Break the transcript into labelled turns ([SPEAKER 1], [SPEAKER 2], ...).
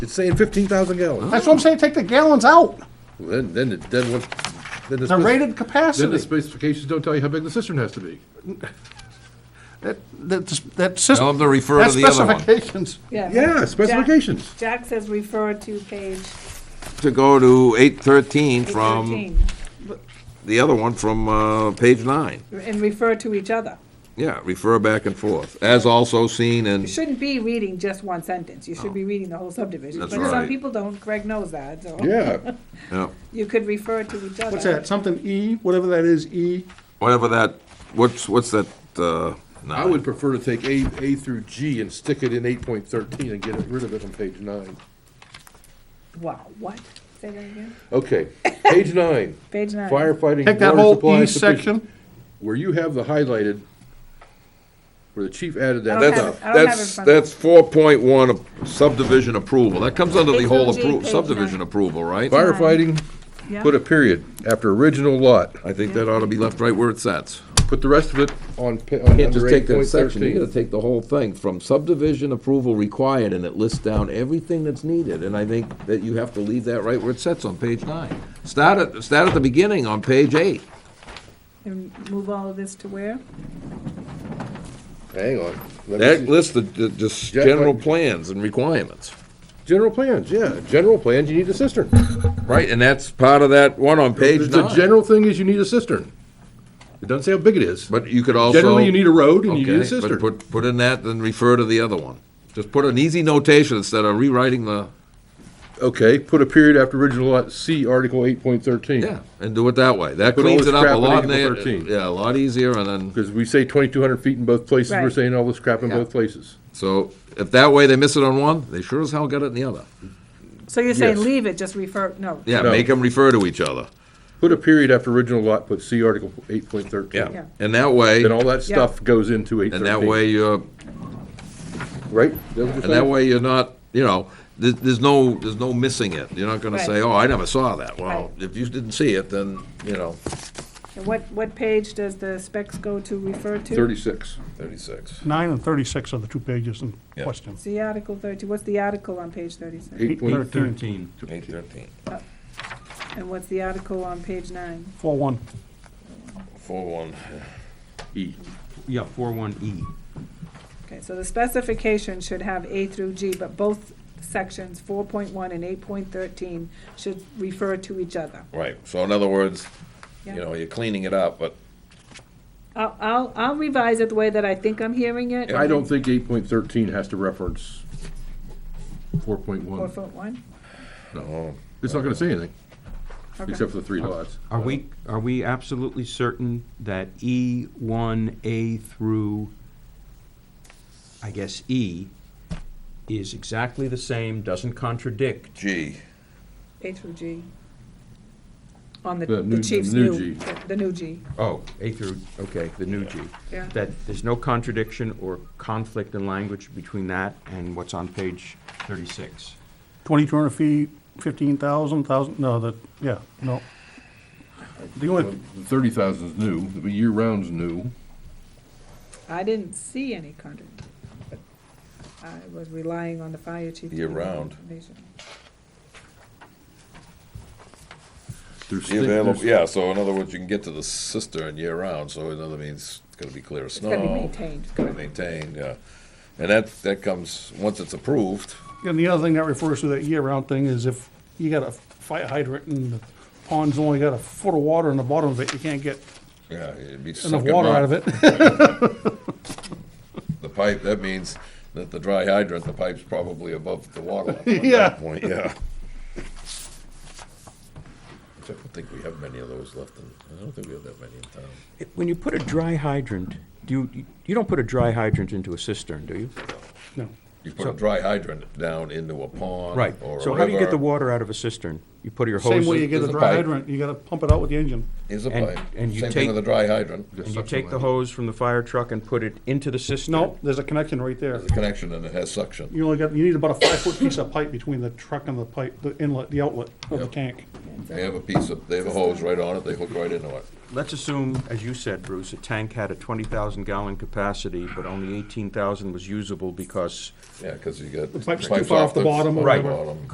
[SPEAKER 1] It's saying fifteen thousand gallons.
[SPEAKER 2] That's what I'm saying, take the gallons out,
[SPEAKER 1] Then, then, it- then what, then the.
[SPEAKER 2] the
[SPEAKER 1] spec-
[SPEAKER 2] rated
[SPEAKER 3] Then the
[SPEAKER 2] capacity.
[SPEAKER 3] specifications don't tell you how big the cistern has to be.
[SPEAKER 2] That, that, that
[SPEAKER 4] Tell them
[SPEAKER 2] system,
[SPEAKER 4] to refer
[SPEAKER 2] that
[SPEAKER 4] to the other one.
[SPEAKER 2] specifications.
[SPEAKER 1] Yeah, specifications.
[SPEAKER 5] Jack says refer to page
[SPEAKER 4] To go to eight thirteen from,
[SPEAKER 5] 13
[SPEAKER 4] the other one from, uh, page nine.
[SPEAKER 5] and refer to each other.
[SPEAKER 4] Yeah, refer back and forth, as also seen in,
[SPEAKER 5] You shouldn't be reading just one sentence. You should be reading the whole subdivision.
[SPEAKER 4] Oh. That's
[SPEAKER 5] But some
[SPEAKER 4] right.
[SPEAKER 5] people don't. Greg knows that, so.
[SPEAKER 1] Yeah,
[SPEAKER 4] yeah,
[SPEAKER 5] You could refer to each other.
[SPEAKER 2] What's that, something E, whatever that is, E?
[SPEAKER 4] whatever that, what's, what's that, uh,
[SPEAKER 1] I
[SPEAKER 4] nine?
[SPEAKER 1] would prefer to take A, A through G and stick it in eight point thirteen and get rid of it on page nine.
[SPEAKER 5] Wow, what? Say that again?
[SPEAKER 1] Okay, page nine,
[SPEAKER 5] Page nine.
[SPEAKER 1] firefighting,
[SPEAKER 2] Take that
[SPEAKER 1] water
[SPEAKER 2] whole
[SPEAKER 1] supply
[SPEAKER 2] E
[SPEAKER 1] sufficient-
[SPEAKER 2] section,
[SPEAKER 1] Where you have the highlighted, where the chief added that.
[SPEAKER 5] I don't
[SPEAKER 4] That's,
[SPEAKER 5] have it.
[SPEAKER 1] stuff.
[SPEAKER 5] I don't have it in
[SPEAKER 4] that's,
[SPEAKER 5] front of me.
[SPEAKER 4] that's four point one subdivision approval, that comes under the whole
[SPEAKER 5] It's on G,
[SPEAKER 4] appro,
[SPEAKER 5] page
[SPEAKER 4] subdivision
[SPEAKER 5] nine.
[SPEAKER 4] approval, right?
[SPEAKER 1] Firefighting,
[SPEAKER 5] Yeah.
[SPEAKER 1] put a period after original lot.
[SPEAKER 4] I think that ought to be left right where it sits.
[SPEAKER 1] Put the rest of it on, pa- on
[SPEAKER 4] Can't
[SPEAKER 1] under
[SPEAKER 4] just
[SPEAKER 1] eight
[SPEAKER 4] take that
[SPEAKER 1] point
[SPEAKER 4] section, you gotta
[SPEAKER 1] thirteen.
[SPEAKER 4] take the whole thing, from subdivision approval required, and it lists down everything that's needed, and I think that you have to leave that right where it sits on page nine. Start at, start at the beginning on page eight.
[SPEAKER 5] And move all of this to where?
[SPEAKER 1] Hang on. let me see.
[SPEAKER 4] That lists the, the, just
[SPEAKER 1] Yeah,
[SPEAKER 4] general
[SPEAKER 1] like-
[SPEAKER 4] plans and requirements,
[SPEAKER 1] General plans, yeah, general plans, you need a cistern.
[SPEAKER 4] right, and that's part of that one on page
[SPEAKER 1] The
[SPEAKER 4] nine.
[SPEAKER 1] general thing is you need a cistern. It doesn't say how big it is.
[SPEAKER 4] But you could also.
[SPEAKER 1] Generally, you need a road and you need a
[SPEAKER 4] Okay,
[SPEAKER 1] cistern.
[SPEAKER 4] but put, put in that, then refer to the other one. Just put an easy notation instead of rewriting the,
[SPEAKER 1] Okay, put a period after original lot, see Article eight point thirteen.
[SPEAKER 4] yeah, and do it that way. That
[SPEAKER 1] Put all
[SPEAKER 4] cleans
[SPEAKER 1] this
[SPEAKER 4] it up
[SPEAKER 1] crap
[SPEAKER 4] a
[SPEAKER 1] in
[SPEAKER 4] lot,
[SPEAKER 1] Article
[SPEAKER 4] na-
[SPEAKER 1] 13.
[SPEAKER 4] yeah, a lot easier, and then,
[SPEAKER 1] Because we say twenty-two hundred feet in both places, we're
[SPEAKER 5] Right.
[SPEAKER 1] saying all this crap in
[SPEAKER 4] Yeah.
[SPEAKER 1] both places.
[SPEAKER 4] so if that way they miss it on one, they sure as hell got it in the other.
[SPEAKER 5] So you're saying
[SPEAKER 1] Yes.
[SPEAKER 5] leave it, just refer, no.
[SPEAKER 4] Yeah,
[SPEAKER 1] No.
[SPEAKER 4] make them refer to each other,
[SPEAKER 1] Put a period after original lot, put see Article eight point thirteen.
[SPEAKER 5] Yeah.
[SPEAKER 4] yeah. And that way,
[SPEAKER 1] Then all
[SPEAKER 4] and
[SPEAKER 1] that
[SPEAKER 5] Yeah.
[SPEAKER 1] stuff goes into eight thirteen.
[SPEAKER 4] that way you're,
[SPEAKER 1] Right?
[SPEAKER 4] and that way you're not, you know, there, there's no, there's no missing it. You're not gonna
[SPEAKER 5] Right.
[SPEAKER 4] say, oh, I never saw that. Well,
[SPEAKER 5] Right.
[SPEAKER 4] if you didn't see it, then, you know.
[SPEAKER 5] And what, what page does the specs go to refer to?
[SPEAKER 1] Thirty-six.
[SPEAKER 4] Thirty-six.
[SPEAKER 2] nine and thirty-six are the two pages in
[SPEAKER 4] Yeah.
[SPEAKER 2] question.
[SPEAKER 5] See Article thirty, what's the article on page thirty-six?
[SPEAKER 1] Eight point
[SPEAKER 2] Thirteen.
[SPEAKER 4] Eight thirteen,
[SPEAKER 5] And what's the article on page nine?
[SPEAKER 2] Four one.
[SPEAKER 4] four one.
[SPEAKER 1] E.
[SPEAKER 6] Yeah, four one E.
[SPEAKER 5] Okay, so the specification should have A through G, but both sections, four point one and eight point thirteen, should refer to each other.
[SPEAKER 4] Right, so in other words, you
[SPEAKER 5] Yeah.
[SPEAKER 4] know, you're cleaning it up, but
[SPEAKER 5] I'll, I'll, I'll revise it the way that I think I'm hearing it.
[SPEAKER 1] I don't think eight point thirteen has to reference four point
[SPEAKER 5] Four
[SPEAKER 1] one.
[SPEAKER 5] foot one?
[SPEAKER 4] no,
[SPEAKER 1] It's not gonna say anything,
[SPEAKER 5] Okay.
[SPEAKER 1] except for the three lots.
[SPEAKER 6] Are we, are we absolutely certain that E one, A through, I guess, E is exactly the same, doesn't contradict?
[SPEAKER 4] gee,
[SPEAKER 5] A through G. On the,
[SPEAKER 1] The new-
[SPEAKER 5] the
[SPEAKER 1] the
[SPEAKER 5] chief's
[SPEAKER 1] new
[SPEAKER 5] new,
[SPEAKER 1] G.
[SPEAKER 5] the- the new G,
[SPEAKER 6] Oh, A through, okay, the new G.
[SPEAKER 5] Yeah.
[SPEAKER 6] That there's no contradiction or conflict in language between that and what's on page thirty-six.
[SPEAKER 2] Twenty-two hundred feet, fifteen thousand, thousand, no, that, yeah, no. The only,
[SPEAKER 1] Thirty thousand is new, the year-round's new.
[SPEAKER 5] I didn't see any contradiction. but I was relying on the fire chief. to give me
[SPEAKER 4] Year-round.
[SPEAKER 5] information.
[SPEAKER 1] There's
[SPEAKER 4] the
[SPEAKER 1] thi-
[SPEAKER 4] available,
[SPEAKER 1] there's-
[SPEAKER 4] yeah, so in other words, you can get to the cistern year-round, so in other means, it's gonna be clear of
[SPEAKER 5] It's
[SPEAKER 4] snow.
[SPEAKER 5] gotta be maintained,
[SPEAKER 4] Gotta be maintained, yeah, and that, that comes, once it's approved,
[SPEAKER 2] and the other thing that refers to that year-round thing is if you got a fire hydrant and the pond's only got a foot of water in the bottom of it, you can't get
[SPEAKER 4] yeah, it'd be
[SPEAKER 2] enough
[SPEAKER 4] sucking
[SPEAKER 2] water out of
[SPEAKER 4] up
[SPEAKER 2] it.
[SPEAKER 4] the pipe, that means that the dry hydrant, the pipe's probably above the water level at
[SPEAKER 2] Yeah.
[SPEAKER 4] that point, yeah. Which I don't think we have many of those left in, I don't think we have that many in town.
[SPEAKER 6] When you put a dry hydrant, do you, you don't put a dry hydrant into a cistern, do you?
[SPEAKER 2] No.
[SPEAKER 4] You put a dry hydrant down into a pond
[SPEAKER 6] Right,
[SPEAKER 4] or a
[SPEAKER 6] so how do you get the
[SPEAKER 4] river.
[SPEAKER 6] water out of a cistern? You put your hose.
[SPEAKER 2] Same way you get
[SPEAKER 4] there's
[SPEAKER 2] a
[SPEAKER 4] a
[SPEAKER 2] dry
[SPEAKER 4] pipe.
[SPEAKER 2] hydrant, you gotta pump it out with the engine.
[SPEAKER 4] Is a
[SPEAKER 6] and-
[SPEAKER 4] pipe.
[SPEAKER 6] and you
[SPEAKER 4] Same thing
[SPEAKER 6] take-
[SPEAKER 4] with a dry hydrant.
[SPEAKER 6] And you take the hose from the fire truck and put it into the cistern?
[SPEAKER 2] No, there's a connection right there.
[SPEAKER 4] There's a connection and it has suction.
[SPEAKER 2] You only got, you need about a five-foot piece of pipe between the truck and the pipe, the inlet, the outlet of the
[SPEAKER 4] Yep.
[SPEAKER 2] tank.
[SPEAKER 4] They have a piece of, they have a hose right on it, they hook right into it.
[SPEAKER 6] let's assume, as you said, Bruce, a tank had a 20,000 gallon capacity, but only 18,000 was usable because
[SPEAKER 4] Yeah, because you got.
[SPEAKER 2] pipe's too far off the bottom or
[SPEAKER 6] Right.
[SPEAKER 2] whatever.
[SPEAKER 4] bottom.